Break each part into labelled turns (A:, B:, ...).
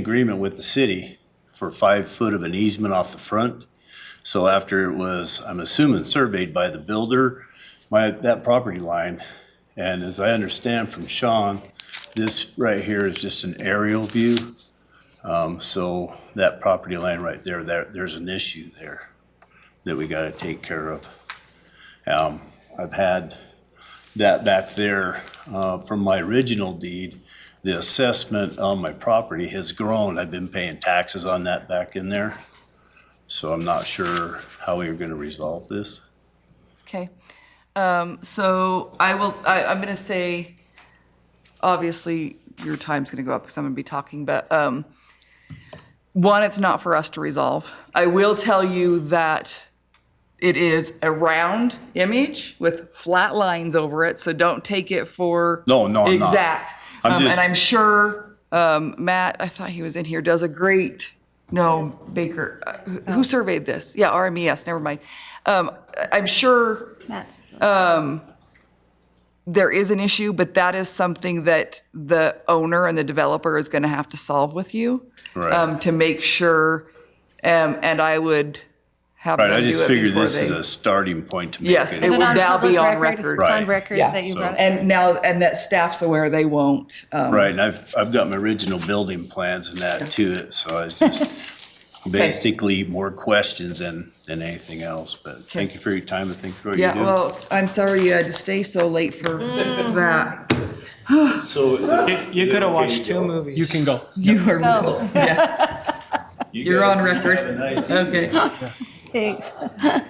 A: agreement with the city for five foot of an easement off the front. So after it was, I'm assuming surveyed by the builder, my, that property line. And as I understand from Sean, this right here is just an aerial view. Um, so that property line right there, there, there's an issue there that we gotta take care of. Um, I've had that back there, uh, from my original deed, the assessment on my property has grown. I've been paying taxes on that back in there. So I'm not sure how we are gonna resolve this.
B: Okay, um, so I will, I, I'm gonna say, obviously, your time's gonna go up because I'm gonna be talking, but, um, one, it's not for us to resolve. I will tell you that it is a round image with flat lines over it, so don't take it for.
A: No, no, I'm not.
B: Exact.
A: I'm
B: Um,
A: just-
B: and I'm sure, um, Matt, I thought he was in here, does a great, no, Baker, uh, who- who surveyed this? Yeah, RMES, never mind. Um, I- I'm sure
C: That's,
B: there is an issue, but that is something that the owner and the developer is going to have to solve with you
A: Right.
B: um, to make sure. Um, and I would have
A: Right, I
B: them do
A: just
B: it
A: figured
B: before
A: this is
B: they-
A: a starting point to make
B: Yes,
A: it.
B: it
C: And
B: will
C: on
B: now be
C: public
B: on record.
C: record, it's on
A: Right.
C: record
B: Yeah.
C: that you
A: So-
C: brought it.
B: And now, and that staff's aware they won't. Um,
A: Right, and I've, I've got my original building plans and that to it, so it's just basically more questions than, than anything else. But thank you for your time and thank you for what you
B: yeah.
A: do.
B: Well, I'm sorry you had to stay so late for that.
A: So
D: You could have watched two movies.
E: You can go.
B: You are. Yeah. You're on record. Okay.
C: Thanks. It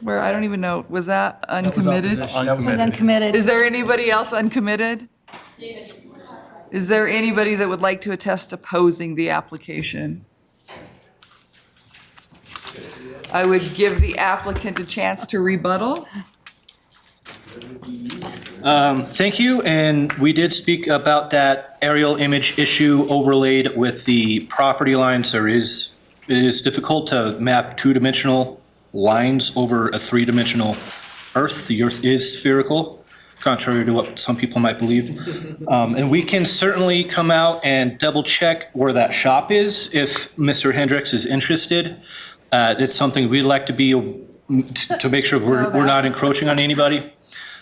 B: Where I don't even know. Was that uncommitted?
C: was uncommitted.
B: Is there anybody else uncommitted? Is there anybody that would like to attest opposing the application? I would give the applicant a chance to rebuttal.
F: Thank you, and we did speak about that aerial image issue overlaid with the property lines. There is, it is difficult to map two-dimensional lines over a three-dimensional earth. The earth is spherical, contrary to what some people might believe. Um, And we can certainly come out and double-check where that shop is if Mr. Hendricks is interested. Uh, It's something we'd like to be, um, to make sure we're we're not encroaching on anybody.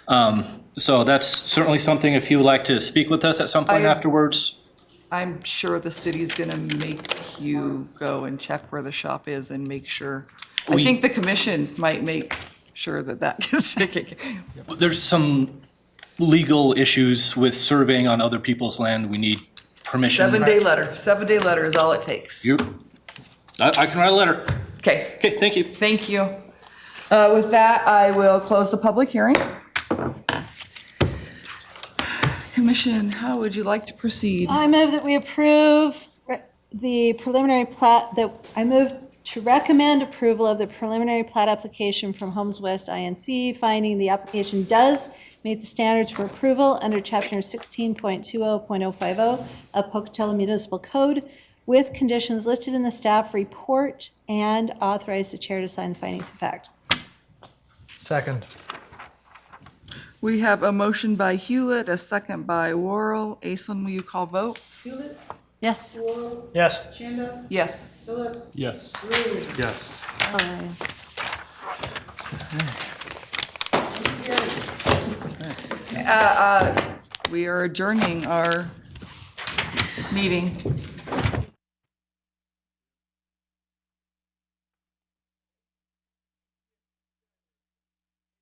F: Um, So that's certainly something, if you would like to speak with us at some point
B: I-
F: afterwards.
B: I'm sure the city's going to make you go and check where the shop is and make sure. I
F: We-
B: think the commission might make sure that that gets taken.
F: There's some legal issues with surveying on other people's land. We need permission.
B: Seven-day letter, seven-day letter is all it takes.
F: You, I, I can write a letter.
B: Okay.
F: Okay, thank you.
B: Thank you. Uh, With that, I will close the public hearing. Commission, how would you like to proceed?
C: I move that we approve re- the preliminary plat, that, I move to recommend approval of the preliminary plat application from Homes West INC, finding the application does meet the standards for approval under chapter sixteen point two oh point oh five oh of Pocatello Municipal Code with conditions listed in the staff report and authorize the chair to sign the findings of fact.
D: Second.
B: We have a motion by Hewlett, a second by Worrell. Aislinn, will you call vote?
C: Yes.
D: Yes.
B: Yes.
E: Yes.
D: Yes.
B: We are adjourning our meeting.